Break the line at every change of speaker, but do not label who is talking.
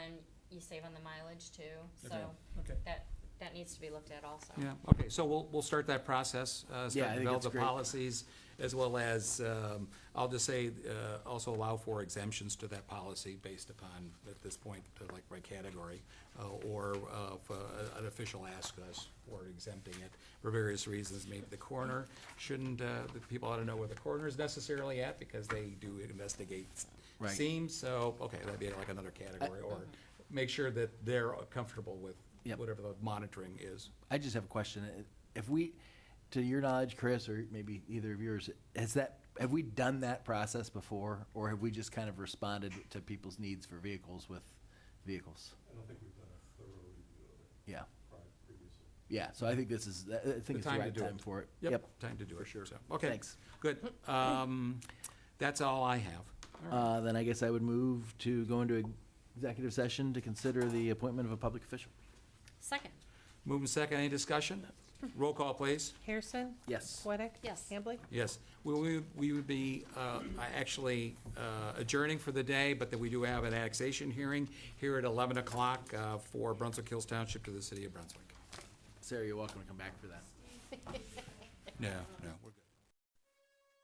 you save on the mileage too, so
Okay. Okay.
that, that needs to be looked at also.
Yeah, okay, so we'll, we'll start that process,
Yeah, I
uh, start to
think
develop
that's
the
great.
policies, as well as, um, I'll just say, uh, also allow for exemptions to that policy based upon, at this point, uh, like by category, uh, or uh, if uh, an official asks us for exempting it for various reasons, maybe the coroner shouldn't, uh, the people ought to know where the coroner is necessarily at, because they do investigate
Right. Uh,
seams, so, okay, that'd be like another category, or make sure that they're comfortable with
Yep.
whatever the monitoring is.
I just have a question. If we, to your knowledge, Chris, or maybe either of yours, has that, have we done that process before? Or have we just kind of responded to people's needs for vehicles with vehicles?
I don't think we've done a thorough review of it
Yeah,
prior, previously.
yeah, so I think this is, I- I think it's the
time to
right
do
time
it.
for it.
Time to do it, sure. Okay.
Thanks.
Good. Um, That's all I have.
Uh, then I guess I would move to go into executive session to consider the appointment of a public official.
Second,
Moving second, any discussion? Roll call, please.
Harrison?
Yes.
Weddick?
Yes.
Hambley?
Yes. We- We we would be uh, actually uh, adjourning for the day, but then we do have an annexation hearing here at 11 o'clock uh, for Brunswick Hills Township to the city of Brunswick.
Sarah, you're welcome to come back for that.
No, no, we're good.